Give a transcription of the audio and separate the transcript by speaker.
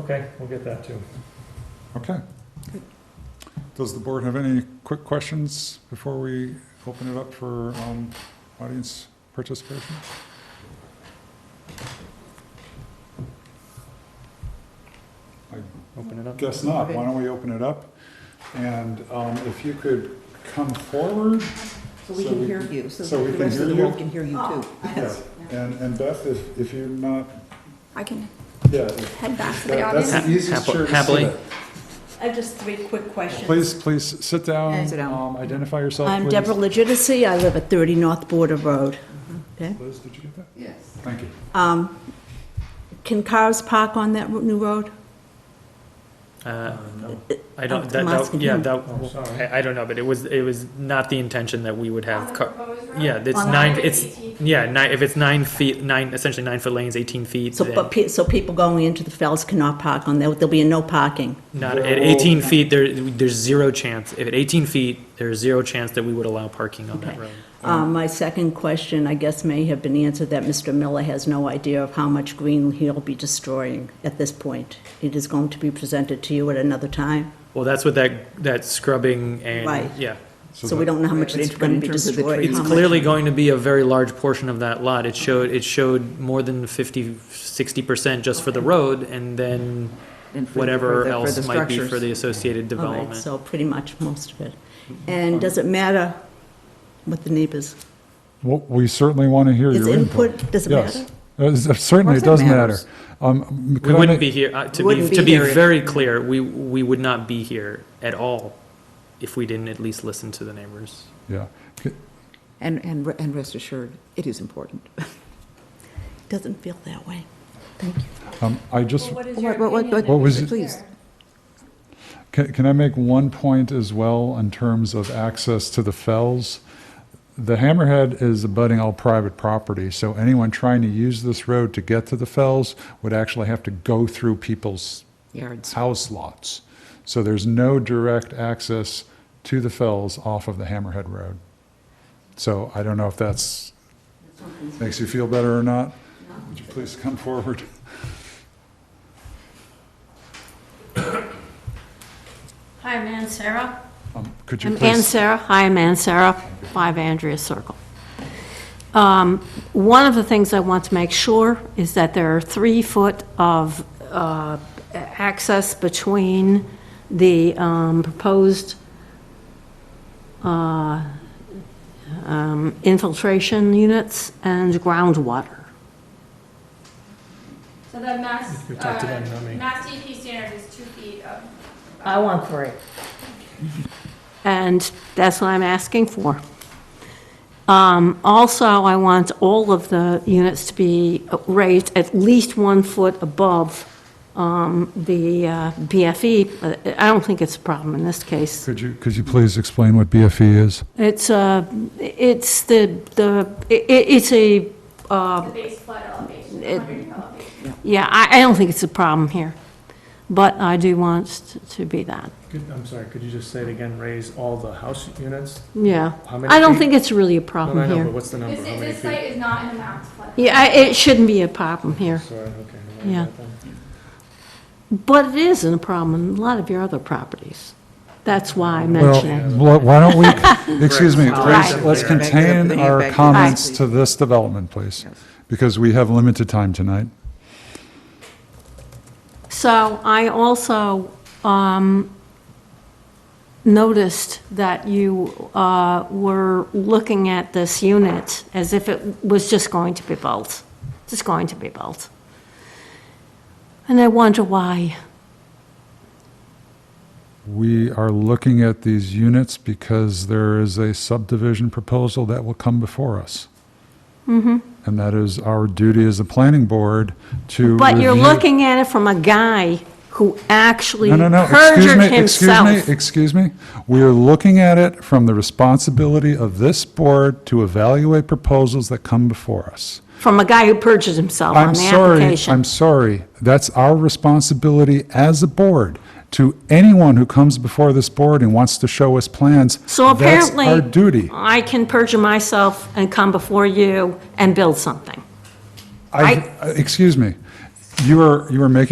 Speaker 1: Okay, we'll get that too.
Speaker 2: Okay. Does the board have any quick questions before we open it up for um, audience participation?
Speaker 1: Open it up.
Speaker 2: Guess not. Why don't we open it up? And um, if you could come forward,
Speaker 3: So we
Speaker 2: So
Speaker 3: can
Speaker 2: we
Speaker 3: hear
Speaker 2: can-
Speaker 3: you, so
Speaker 2: so we
Speaker 3: that the
Speaker 2: can
Speaker 3: rest of
Speaker 2: hear
Speaker 3: the
Speaker 2: you?
Speaker 3: world can hear you too.
Speaker 2: yeah. and and Beth, if if you're not,
Speaker 4: I can
Speaker 2: yeah, if-
Speaker 4: head back to the
Speaker 2: that- that's
Speaker 4: audience.
Speaker 2: the easiest
Speaker 5: Happily-
Speaker 2: chair to sit
Speaker 5: happily.
Speaker 2: in.
Speaker 6: I have just three quick questions.
Speaker 2: Please, please, sit down.
Speaker 3: Sit down.
Speaker 2: Um, Identify yourself,
Speaker 7: I'm
Speaker 2: please.
Speaker 7: Deborah Legitimacy. I live at 30 North Border Road. Okay.
Speaker 2: Liz, did you get that?
Speaker 3: Yes.
Speaker 2: Thank you.
Speaker 7: Um, Can cars park on that ro- new road?
Speaker 5: Uh,
Speaker 1: No.
Speaker 5: I don't, that,
Speaker 7: I'm
Speaker 5: that,
Speaker 7: asking
Speaker 5: yeah,
Speaker 7: him.
Speaker 1: Oh,
Speaker 5: that,
Speaker 1: sorry.
Speaker 5: I, I don't know, but it was, it was not the intention that we would have car. Yeah, it's
Speaker 7: On the
Speaker 5: nine,
Speaker 4: highway,
Speaker 5: it's,
Speaker 4: 18 feet.
Speaker 5: yeah, nine, if it's nine feet, nine, essentially nine foot lanes, eighteen feet,
Speaker 7: So, but,
Speaker 5: then
Speaker 7: pe- so people going into the Fells cannot park on there, there'll be a no parking.
Speaker 5: not,
Speaker 2: There
Speaker 5: at
Speaker 2: will-
Speaker 5: eighteen feet, there, there's zero chance, if at eighteen feet, there's zero chance that we would allow parking on that
Speaker 7: Okay.
Speaker 5: road.
Speaker 7: Uh, My second question, I guess, may have been answered, that Mr. Miller has no idea of how much green he'll be destroying at this point. It is going to be presented to you at another time,
Speaker 5: Well, that's what that, that scrubbing and,
Speaker 7: Right.
Speaker 5: yeah.
Speaker 7: so we don't know how much
Speaker 3: Right,
Speaker 7: it's
Speaker 3: but
Speaker 7: going
Speaker 3: in
Speaker 7: to be
Speaker 3: terms of the
Speaker 7: destroyed.
Speaker 3: trees.
Speaker 5: It's
Speaker 7: how much-
Speaker 5: clearly going to be a very large portion of that lot. It showed, it showed more than fifty, sixty percent just for the road and then whatever else might be for the associated
Speaker 7: All right,
Speaker 5: development.
Speaker 7: so pretty much most of it. And does it matter what the neighbors,
Speaker 2: Well, we certainly want to hear
Speaker 7: is
Speaker 2: your input.
Speaker 7: input, does it matter?
Speaker 2: Yes, Uh, certainly it
Speaker 3: Of
Speaker 2: does
Speaker 3: course it
Speaker 2: matter.
Speaker 3: matters.
Speaker 2: Um, could
Speaker 5: We
Speaker 2: I
Speaker 5: wouldn't be
Speaker 2: make-
Speaker 5: here, uh, to be,
Speaker 7: Wouldn't
Speaker 5: to
Speaker 7: be
Speaker 5: be
Speaker 7: here if-
Speaker 5: very clear, we, we would not be here at all if we didn't at least listen to the neighbors.
Speaker 2: Yeah, C-
Speaker 3: And, and, re- and rest assured, it is important.
Speaker 7: Doesn't feel that way.
Speaker 2: um, I just,
Speaker 6: Well, What is
Speaker 3: What-
Speaker 6: your
Speaker 3: what- what-
Speaker 6: opinion?
Speaker 3: what-
Speaker 6: then?
Speaker 2: What was it-
Speaker 3: Please.
Speaker 2: can, can I make one point as well in terms of access to the fells? The Hammerhead is abutting all private property, so anyone trying to use this road to get to the fells would actually have to go through people's
Speaker 3: Yards.
Speaker 2: house lots. So there's no direct access to the fells off of the Hammerhead Road. So I don't know if that's, makes you feel better or not. Would you please come forward?
Speaker 8: Hi, I'm Ann Sarah.
Speaker 2: Um, Could you
Speaker 8: I'm Ann
Speaker 2: please?
Speaker 8: Sarah. Hi, I'm Ann Sarah, 5 Andrea Circle. Um, One of the things I want to make sure is that there are three foot of uh, access between the um, proposed uh, um, infiltration units and groundwater.
Speaker 4: So the mass,
Speaker 1: You talked to them, not
Speaker 4: uh,
Speaker 1: me.
Speaker 4: mass DEP standard is two feet of
Speaker 9: I want three.
Speaker 8: And that's what I'm asking for. Um, Also, I want all of the units to be raised at least one foot above um, the uh, BFE. Uh, I don't think it's a problem in this case.
Speaker 2: Could you, could you please explain what BFE is?
Speaker 8: It's, uh, it's the, the, i- i- it's a,
Speaker 4: the base flood elevation,
Speaker 8: It-
Speaker 4: 100 elevation.
Speaker 8: yeah, I I don't think it's a problem here, but I do want it to be that,
Speaker 1: Could- I'm sorry, could you just say it again, raise all the house units?
Speaker 8: yeah.
Speaker 1: How many
Speaker 8: I don't
Speaker 1: feet?
Speaker 8: think it's really a
Speaker 1: No, no, I
Speaker 8: problem
Speaker 1: know, but
Speaker 8: here.
Speaker 1: what's the number?
Speaker 4: This,
Speaker 1: How many
Speaker 4: this
Speaker 1: feet?
Speaker 4: site is not in the mass flood.
Speaker 8: Yeah, I- it shouldn't be a problem here.
Speaker 1: Sorry, okay. I
Speaker 8: Yeah.
Speaker 1: got that.
Speaker 8: But it isn't a problem in a lot of your other properties. That's why
Speaker 2: Well,
Speaker 8: I mention it.
Speaker 2: wh- why don't we, excuse me,
Speaker 1: Right.
Speaker 2: let's-
Speaker 1: Right.
Speaker 2: let's
Speaker 1: Bring
Speaker 3: it up,
Speaker 2: contain
Speaker 3: bring it
Speaker 2: our
Speaker 3: back.
Speaker 2: comments
Speaker 3: Right.
Speaker 2: to this development, please,
Speaker 3: Yes.
Speaker 2: because we have limited time tonight.
Speaker 8: So I also um, noticed that you uh, were looking at this unit as if it was just going to be built, just going to be built. And I wonder why.
Speaker 2: We are looking at these units because there is a subdivision proposal that will come before us.
Speaker 8: Mm-hmm.
Speaker 2: And that is our duty as a planning board to
Speaker 8: But you're
Speaker 2: review-
Speaker 8: looking at it from a guy who actually
Speaker 2: No, no, no, excuse
Speaker 8: perjured
Speaker 2: me, excuse
Speaker 8: himself.
Speaker 2: me, excuse me. We are looking at it from the responsibility of this board to evaluate proposals that come before us.
Speaker 8: From a guy who perjured himself on
Speaker 2: I'm
Speaker 8: the
Speaker 2: sorry,
Speaker 8: application.
Speaker 2: I'm sorry. That's our responsibility as a board to anyone who comes before this board and wants to show us plans.
Speaker 8: So apparently.
Speaker 2: That's our duty.
Speaker 8: I can perjure myself and come before you and build something.
Speaker 2: uh, I, excuse me. You are, you are making